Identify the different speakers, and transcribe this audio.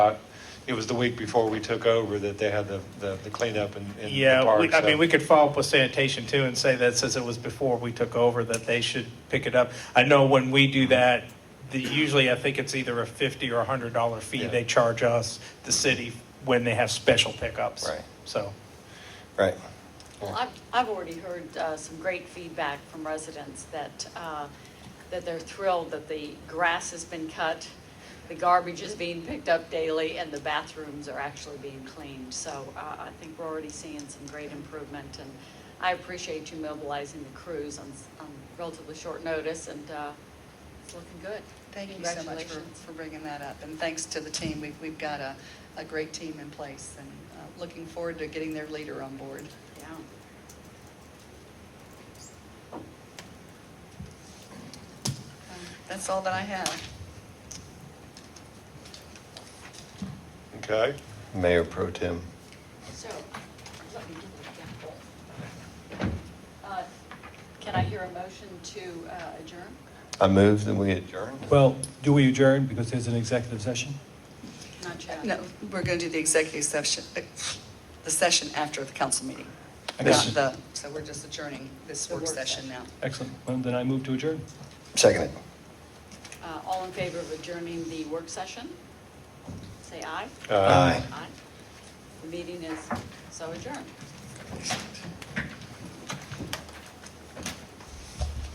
Speaker 1: It was the week before we took over that they had the, the the cleanup in, in the
Speaker 2: Yeah,
Speaker 1: park.
Speaker 2: we- I
Speaker 1: so-
Speaker 2: mean, we could follow up with sanitation too and say that since it was before we took over, that they should pick it up. I know when we do that, the, usually I think it's either a fifty or a hundred dollar fee
Speaker 1: Yeah.
Speaker 2: they charge us, the city, when they have special pickups.
Speaker 3: Right.
Speaker 2: So,
Speaker 3: Right.
Speaker 4: Well, I've, I've already heard uh, some great feedback from residents that, uh, that they're thrilled that the grass has been cut, the garbage is being picked up daily, and the bathrooms are actually being cleaned. So uh, I think we're already seeing some great improvement, and I appreciate you mobilizing the crews on, s- on relatively short notice, and uh, it's looking good.
Speaker 5: Thank you so much for,
Speaker 4: Congratulations.
Speaker 5: for bringing that up, and thanks to the team. We've, we've got a, a great team in place, and uh, looking forward to getting their leader on board.
Speaker 4: Yeah.
Speaker 5: That's all that I have.
Speaker 1: Okay.
Speaker 3: Mayor Pro Tem.
Speaker 4: So, let me get the gavel. Uh, Can I hear a motion to uh, adjourn?
Speaker 3: I move that we adjourn.
Speaker 6: Well, do we adjourn because there's an executive session?
Speaker 4: Not yet.
Speaker 5: No, we're going to do the executive session, uh, the session after the council meeting.
Speaker 6: I
Speaker 5: Not
Speaker 6: got it.
Speaker 5: the- So we're just adjourning this
Speaker 4: The
Speaker 5: work
Speaker 4: work
Speaker 5: session now.
Speaker 4: session.
Speaker 6: Excellent. Well, Then I move to adjourn.
Speaker 3: Second it.
Speaker 4: Uh, All in favor of adjourning the work session? Say aye.
Speaker 1: Uh,
Speaker 3: Aye.
Speaker 4: Aye. The meeting is so adjourned.